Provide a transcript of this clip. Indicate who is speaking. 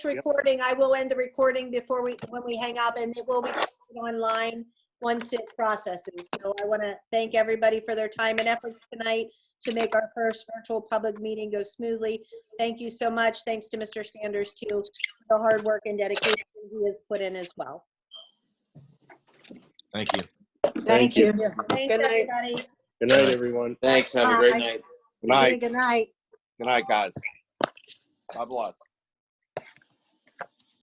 Speaker 1: recording, I will end the recording before we, when we hang up, and it will be posted online once it processes. So I want to thank everybody for their time and efforts tonight to make our first virtual public meeting go smoothly. Thank you so much. Thanks to Mr. Sanders, too, for the hard work and dedication he has put in as well.
Speaker 2: Thank you.
Speaker 3: Thank you.
Speaker 1: Thanks,
Speaker 4: Good night.
Speaker 1: everybody.
Speaker 3: Good night, everyone.
Speaker 5: Thanks. Have a great
Speaker 1: Bye.
Speaker 5: night.
Speaker 2: Good night.
Speaker 1: Good night.
Speaker 2: Good night, guys. God bless.